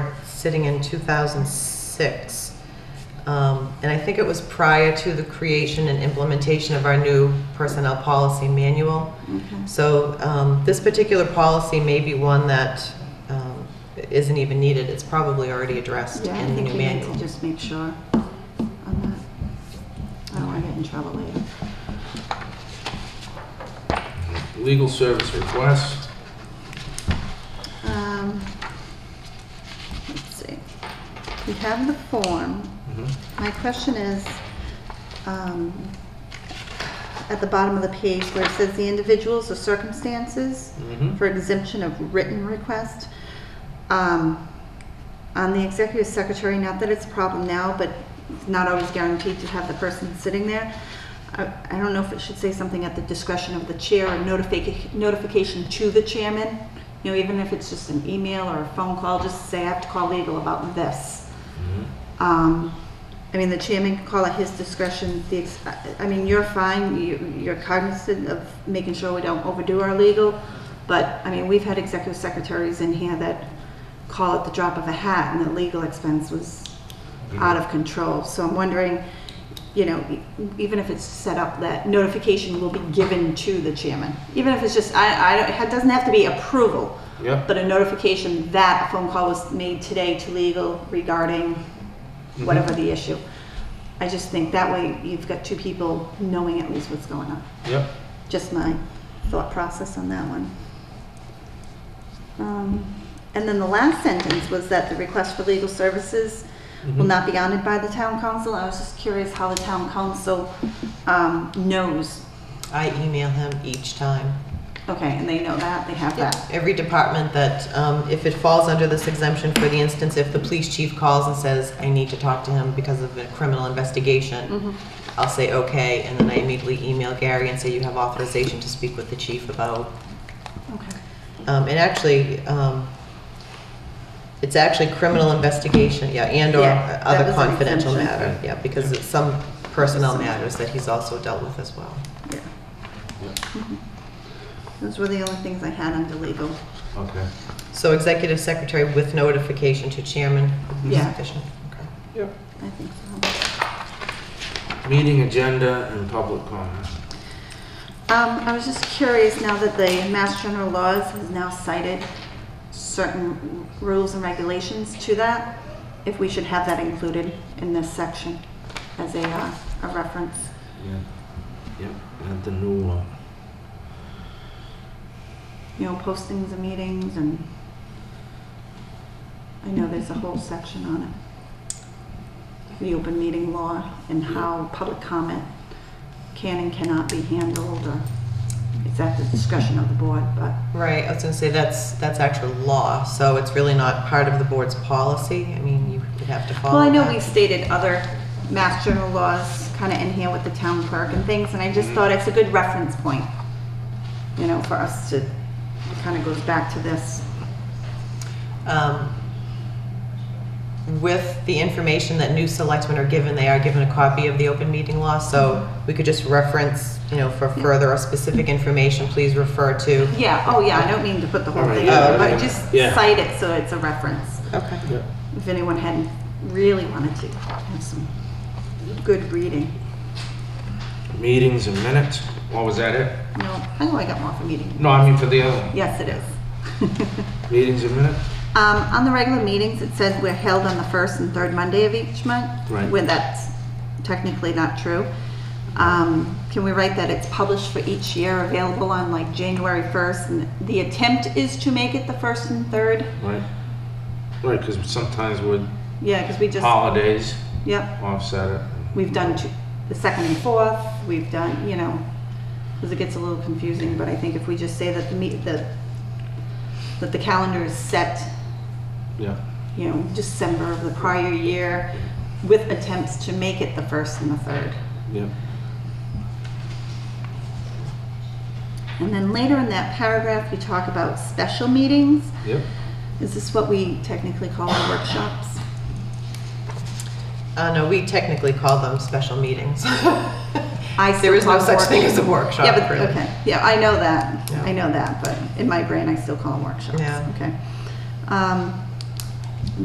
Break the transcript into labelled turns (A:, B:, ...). A: sitting in 2006. Um, And I think it was prior to the creation and implementation of our new personnel policy manual. So um, this particular policy may be one that um, isn't even needed. It's probably already addressed
B: Yeah, I
A: in the
B: think
A: new
B: we need to
A: manual.
B: just make sure on that. I don't want to get in trouble later.
C: Legal service request,
B: Um, Let's see. We have the form.
C: Mm-hmm.
B: My question is, um, at the bottom of the page where it says the individuals or circumstances
C: Mhm.
B: for exemption of written request, um, on the executive secretary, not that it's a problem now, but it's not always guaranteed to have the person sitting there. I I don't know if it should say something at the discretion of the chair or notifica- notification to the chairman. You know, even if it's just an email or a phone call, just say, I have to call legal about this. Um, I mean, the chairman can call at his discretion, the, ex- I- I mean, you're fine, you- you're cognizant of making sure we don't overdo our legal, but, I mean, we've had executive secretaries in here that call at the drop of a hat, and the legal expense was out of control. So I'm wondering, you know, e- even if it's set up that notification will be given to the chairman, even if it's just, I, I, don't- it doesn't have to be approval,
C: yep.
B: but a notification that a phone call was made today to legal regarding whatever the issue. I just think that way you've got two people knowing at least what's going on.
C: Yep,
B: Just my thought process on that one. Um, And then the last sentence was that the request for legal services will not be honored by the town council. I was just curious how the town council um, knows.
A: I email him each time.
B: Okay, and they know that, they have that.
A: Every department that, um, if it falls under this exemption, for the instance, if the police chief calls and says, I need to talk to him because of a criminal
B: Mm-hmm.
A: investigation, I'll say, okay, and then I immediately email Gary and say, you have authorization to speak with the chief about,
B: Okay.
A: um, and actually, um, it's actually criminal investigation, yeah, and or
B: Yeah, that
A: other
B: was an
A: confidential
B: exemption.
A: matter, yeah, because it's some personnel matters that he's also dealt with as well.
B: Yeah. Mhm. Those were the only things I had under legal.
C: okay.
A: So executive secretary with notification to chairman would be
B: Yeah.
A: sufficient. Okay.
C: Yep.
B: I think so.
C: Meeting agenda and public comment.
B: Um, I was just curious now that the Mass General Laws has now cited certain rules and regulations to that, if we should have that included in this section as a, uh, a reference.
C: Yeah. Yep, and the new one.
B: You know, postings of meetings and I know there's a whole section on it. The open meeting law and how public comment can and cannot be handled or it's at the discretion of the board, but,
A: Right, I was gonna say, that's, that's actual law, so it's really not part of the board's policy. I mean, you would have to follow
B: well, I know
A: that.
B: we've stated other mass general laws kind of in here with the town clerk and things, and I just thought it's a good reference point, you know, for us to, it kind of goes back to this.
A: Um, With the information that new selectmen are given, they are given a copy of the open meeting law, so we could just reference, you know, for further or specific information, please refer to.
B: Yeah, oh yeah, I don't mean to put the whole
C: Alright,
B: thing
C: yeah,
B: up,
C: yeah,
B: but just
C: yeah.
B: cite it so it's a reference.
A: Okay.
C: Yep.
B: if anyone hadn't really wanted to have some good reading.
C: Meetings and minutes, what was that it?
B: No, I know I got more for meeting.
C: No, I mean for the other one.
B: Yes, it is.
C: Meetings and minutes?
B: Um, on the regular meetings, it says we're held on the first and third Monday of each month.
C: Right.
B: When that's technically not true. Um, can we write that it's published for each year, available on like January first? And the attempt is to make it the first and third?
C: Right. Right, because sometimes with
B: Yeah, because we just,
C: Oh. holidays,
B: yep,
C: offset it.
B: we've done two, the second and fourth, we've done, you know, because it gets a little confusing, but I think if we just say that the meet, the, that the calendar is set,
C: Yeah.
B: you know, December of the prior year with attempts to make it the first and the third.
C: Yep.
B: And then later in that paragraph, you talk about special meetings.
C: Yep.
B: Is this what we technically call our workshops?
A: Uh, no, we technically call them special meetings.
B: I
A: There
B: still
A: is no
B: call them
A: such thing as a
B: work- Yeah,
A: workshop,
B: but,
A: really.
B: okay, yeah, I know that,
A: Yeah.
B: I know that, but in my brain, I still call them workshops,
A: Yeah.
B: okay. Um,